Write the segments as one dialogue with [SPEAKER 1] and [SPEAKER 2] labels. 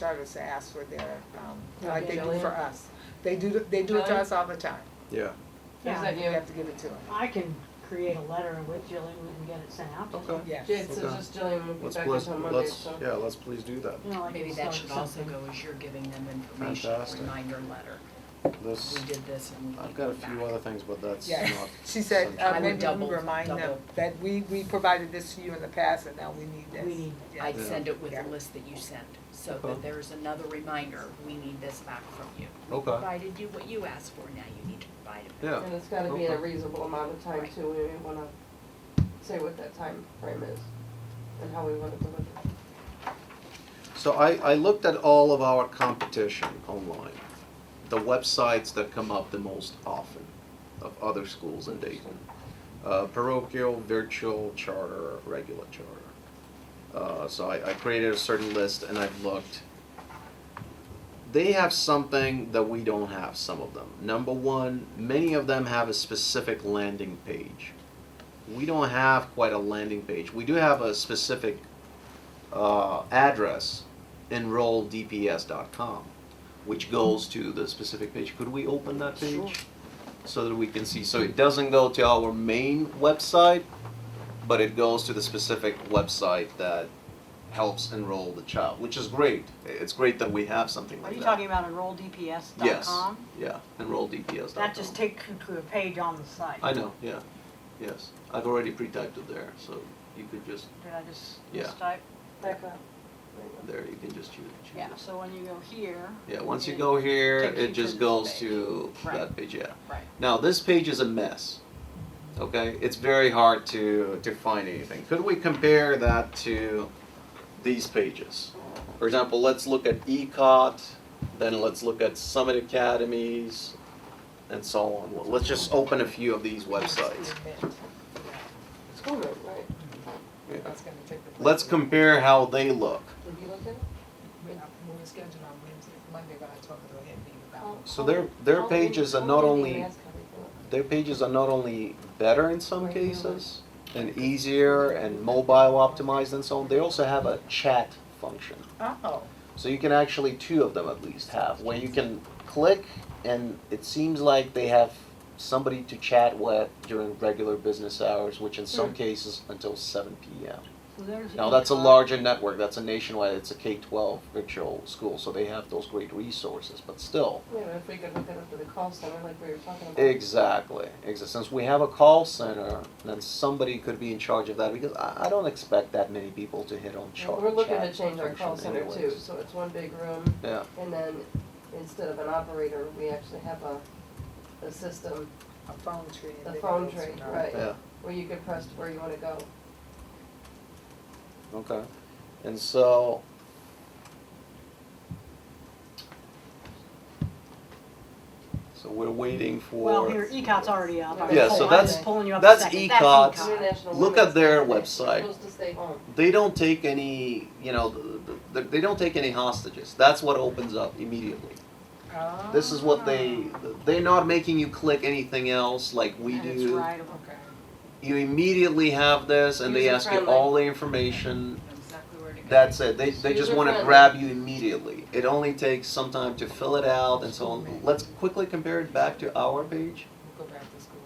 [SPEAKER 1] Charters ask for their, um,
[SPEAKER 2] Yeah,
[SPEAKER 1] like they do
[SPEAKER 2] billing.
[SPEAKER 1] for us. They do, th- they do it to
[SPEAKER 2] Billing.
[SPEAKER 1] us all the time.
[SPEAKER 3] Yeah,
[SPEAKER 1] We
[SPEAKER 2] Is that
[SPEAKER 4] Yeah,
[SPEAKER 2] you?
[SPEAKER 1] have to give it to them,
[SPEAKER 4] I can create a letter with Jillian and get it sent out to them.
[SPEAKER 3] okay.
[SPEAKER 1] yes.
[SPEAKER 2] Jade says
[SPEAKER 3] Okay.
[SPEAKER 2] just Jillian will be
[SPEAKER 3] Let's,
[SPEAKER 2] back
[SPEAKER 3] let's,
[SPEAKER 2] until Monday,
[SPEAKER 3] let's,
[SPEAKER 2] so.
[SPEAKER 3] yeah, let's please do that.
[SPEAKER 4] You know, like
[SPEAKER 5] Maybe
[SPEAKER 4] start
[SPEAKER 5] that should also
[SPEAKER 4] something.
[SPEAKER 5] go as you're giving them information,
[SPEAKER 3] Fantastic.
[SPEAKER 5] reminder letter.
[SPEAKER 3] This,
[SPEAKER 5] We did this and we need
[SPEAKER 3] I've got a
[SPEAKER 5] it
[SPEAKER 3] few
[SPEAKER 5] back.
[SPEAKER 3] other things, but that's
[SPEAKER 1] Yeah,
[SPEAKER 3] not.
[SPEAKER 1] she said,
[SPEAKER 3] essential.
[SPEAKER 5] I
[SPEAKER 1] uh,
[SPEAKER 5] would
[SPEAKER 1] maybe
[SPEAKER 5] double-
[SPEAKER 1] we remind them
[SPEAKER 5] double.
[SPEAKER 1] that we, we provided this to you in the past and now we need this.
[SPEAKER 4] We need-
[SPEAKER 1] Yeah.
[SPEAKER 5] I'd
[SPEAKER 3] Yeah.
[SPEAKER 5] send it with
[SPEAKER 1] Yeah.
[SPEAKER 5] the list that you sent, so
[SPEAKER 3] Okay.
[SPEAKER 5] that there's another reminder, we need this back from you.
[SPEAKER 3] Okay.
[SPEAKER 5] Provided you what you asked for, now you need to provide it.
[SPEAKER 3] Yeah.
[SPEAKER 2] And it's gotta be in a
[SPEAKER 3] Okay.
[SPEAKER 2] reasonable amount of time
[SPEAKER 5] Right.
[SPEAKER 2] too, we wanna say what that time frame is and how we wanna deliver.
[SPEAKER 3] So I, I looked at all of our competition online, the websites that come up the most often of other schools in Dayton. Uh, parochial, virtual, charter, regular charter. Uh, so I, I created a certain list and I've looked. They have something that we don't have, some of them. Number one, many of them have a specific landing page. We don't have quite a landing page. We do have a specific uh, address enrolldps.com, which goes to the specific page. Could we open that page? So that we can see. So it doesn't go to our main website, but it goes to the specific website that helps enroll the child, which is great. It's great that we have something
[SPEAKER 4] Are
[SPEAKER 3] like
[SPEAKER 4] you
[SPEAKER 3] that.
[SPEAKER 4] talking about enrolldps.com?
[SPEAKER 3] yes. Yeah, enrolldps.com.
[SPEAKER 4] That just takes you to a page on the site.
[SPEAKER 3] I know, yeah. Yes. I've already pre typed it there, so you could just,
[SPEAKER 4] Did I just
[SPEAKER 3] Yeah.
[SPEAKER 4] mistype?
[SPEAKER 2] Back up.
[SPEAKER 3] there, you can just choose. choose
[SPEAKER 4] Yeah,
[SPEAKER 3] this.
[SPEAKER 4] so when you go here,
[SPEAKER 3] Yeah, once you go here,
[SPEAKER 4] Takes you
[SPEAKER 3] it
[SPEAKER 4] to
[SPEAKER 3] just
[SPEAKER 4] this
[SPEAKER 3] goes
[SPEAKER 4] page.
[SPEAKER 3] to
[SPEAKER 5] Right.
[SPEAKER 3] that page, yeah.
[SPEAKER 5] Right.
[SPEAKER 3] Now, this page is a mess. Okay, it's very hard to, to find anything. Could we compare that to these pages? For example, let's look at E ECOT, then let's look at Summit Academies, and so on. Well, Let's just open a few of these websites.
[SPEAKER 2] School room, right?
[SPEAKER 3] Yeah.
[SPEAKER 1] That's gonna take the place.
[SPEAKER 3] Let's compare how they look.
[SPEAKER 2] Did you look at it?
[SPEAKER 1] We're not- we're Uh, scheduled on Wednesday, Monday, but I talked to him about
[SPEAKER 2] How-
[SPEAKER 3] So
[SPEAKER 2] how
[SPEAKER 3] their-
[SPEAKER 2] did-
[SPEAKER 3] their
[SPEAKER 2] how
[SPEAKER 3] pages
[SPEAKER 2] did-
[SPEAKER 3] are not
[SPEAKER 2] how did
[SPEAKER 3] only-
[SPEAKER 2] you ask everything?
[SPEAKER 3] Their pages are not only better in some
[SPEAKER 2] Right, yeah.
[SPEAKER 3] cases and easier and mobile optimized and so on, they also have a chat function.
[SPEAKER 1] it. Oh,
[SPEAKER 3] So you can actually, two of them at least have, where you can click and it seems like they have somebody to chat with during regular business hours, which in some cases until seven PM.
[SPEAKER 4] so there's. E
[SPEAKER 3] Now, that's a
[SPEAKER 4] ECOT.
[SPEAKER 3] larger network, that's a nationwide, it's a K-12 virtual school, so they have those great resources, but still.
[SPEAKER 2] Wait a minute, if we could look it up to the call center like we were talking about.
[SPEAKER 3] Exactly, exa- since we have a call center, then somebody could be in charge of that, because I, I don't expect that many people to hit on
[SPEAKER 2] And
[SPEAKER 3] char- chat
[SPEAKER 2] We're looking to change our call
[SPEAKER 3] function
[SPEAKER 2] center too,
[SPEAKER 3] anyways.
[SPEAKER 2] so it's one big room
[SPEAKER 3] Yeah,
[SPEAKER 2] and then instead of an operator, we actually have a, a system
[SPEAKER 1] a phone tree. and
[SPEAKER 2] The
[SPEAKER 1] then it
[SPEAKER 2] phone
[SPEAKER 1] goes
[SPEAKER 2] tree,
[SPEAKER 1] from there.
[SPEAKER 2] right.
[SPEAKER 3] yeah.
[SPEAKER 2] where you could press where you wanna go.
[SPEAKER 3] Okay, and so. So we're waiting for.
[SPEAKER 4] Well, here,
[SPEAKER 2] e-
[SPEAKER 4] E ECOT's already up. I was
[SPEAKER 2] Yeah,
[SPEAKER 4] pull-
[SPEAKER 2] so
[SPEAKER 4] I
[SPEAKER 2] that's-
[SPEAKER 4] was pulling you up a
[SPEAKER 3] that's E
[SPEAKER 4] second.
[SPEAKER 3] ECOT's.
[SPEAKER 4] That's E ECOT.
[SPEAKER 2] International
[SPEAKER 3] Look at
[SPEAKER 2] Women's
[SPEAKER 3] their
[SPEAKER 2] Day. We're
[SPEAKER 3] website.
[SPEAKER 2] Supposed to stay home.
[SPEAKER 3] They don't take any, you know, th- th- they don't take any hostages. That's what opens up immediately.
[SPEAKER 1] Oh.
[SPEAKER 3] This is what they,
[SPEAKER 2] Ah.
[SPEAKER 3] they're not making you click anything else like we do.
[SPEAKER 4] And it's writable.
[SPEAKER 1] Okay.
[SPEAKER 3] You immediately have this and they ask you
[SPEAKER 2] User-friendly.
[SPEAKER 3] all the information.
[SPEAKER 5] Exactly where to go.
[SPEAKER 3] That's it. They, they just want to
[SPEAKER 2] User-friendly.
[SPEAKER 3] grab you immediately. It only takes some time to fill it out and so on. Let's quickly compare it back to our page.
[SPEAKER 1] We'll go back to school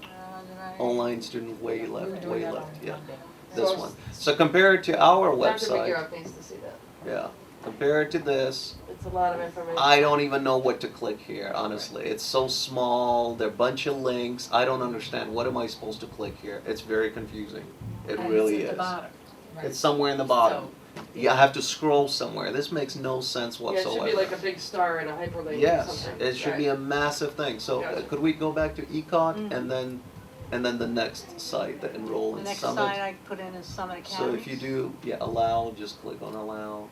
[SPEAKER 1] then.
[SPEAKER 4] Uh, did I-
[SPEAKER 3] Online student way
[SPEAKER 1] We're
[SPEAKER 3] left,
[SPEAKER 1] doing
[SPEAKER 3] way
[SPEAKER 1] that
[SPEAKER 3] left,
[SPEAKER 1] on
[SPEAKER 3] yeah,
[SPEAKER 1] Monday.
[SPEAKER 3] this
[SPEAKER 2] So-
[SPEAKER 3] one. So compare it to our
[SPEAKER 2] Dr.
[SPEAKER 3] website,
[SPEAKER 2] McGarrett needs to see that.
[SPEAKER 3] yeah, compare it to this.
[SPEAKER 2] It's a lot of information.
[SPEAKER 3] I don't even know what to click here, honestly. It's so small, there are a bunch of links. I don't understand. What am I supposed to click here? It's very confusing. It
[SPEAKER 5] And
[SPEAKER 3] really
[SPEAKER 5] It's at the
[SPEAKER 3] is.
[SPEAKER 5] bottom.
[SPEAKER 1] Right.
[SPEAKER 3] It's somewhere in the
[SPEAKER 5] So-
[SPEAKER 3] bottom. You have to scroll somewhere. This makes no sense
[SPEAKER 2] Yeah, it
[SPEAKER 3] whatsoever.
[SPEAKER 2] should be like a big star and a hyperlink or
[SPEAKER 3] Yes,
[SPEAKER 2] something.
[SPEAKER 3] it should be a massive thing. So uh,
[SPEAKER 2] Gotcha.
[SPEAKER 3] could we go back to E ECOG
[SPEAKER 4] Mhm.
[SPEAKER 3] and then, and then the next site, the enroll
[SPEAKER 4] The
[SPEAKER 3] in
[SPEAKER 4] next
[SPEAKER 3] Summit?
[SPEAKER 4] site Uh, I put in is Summit
[SPEAKER 3] So
[SPEAKER 4] Academy.
[SPEAKER 3] if you do, yeah, allow, just click on allow.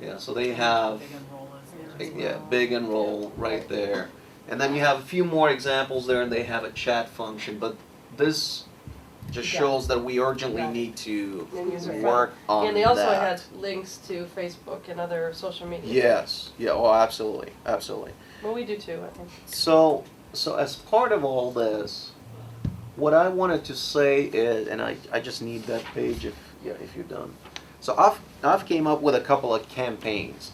[SPEAKER 3] Yeah, so they have,
[SPEAKER 5] Big enroll is there as
[SPEAKER 3] big-
[SPEAKER 5] well.
[SPEAKER 3] yeah, big enroll right there. And then you have a few more examples there and they have a chat function, but this just
[SPEAKER 1] Yeah.
[SPEAKER 3] shows that we urgently
[SPEAKER 1] Right.
[SPEAKER 3] need to
[SPEAKER 2] And user friendly.
[SPEAKER 3] work on that.
[SPEAKER 2] And they also had links to Facebook and other social media.
[SPEAKER 3] Yes, yeah, oh, absolutely, absolutely.
[SPEAKER 2] Well, we do too, I think.
[SPEAKER 3] So, so as part of all this, what I wanted to say is, and I, I just need that page if, yeah, if you're done. So I've I've came up with a couple of campaigns.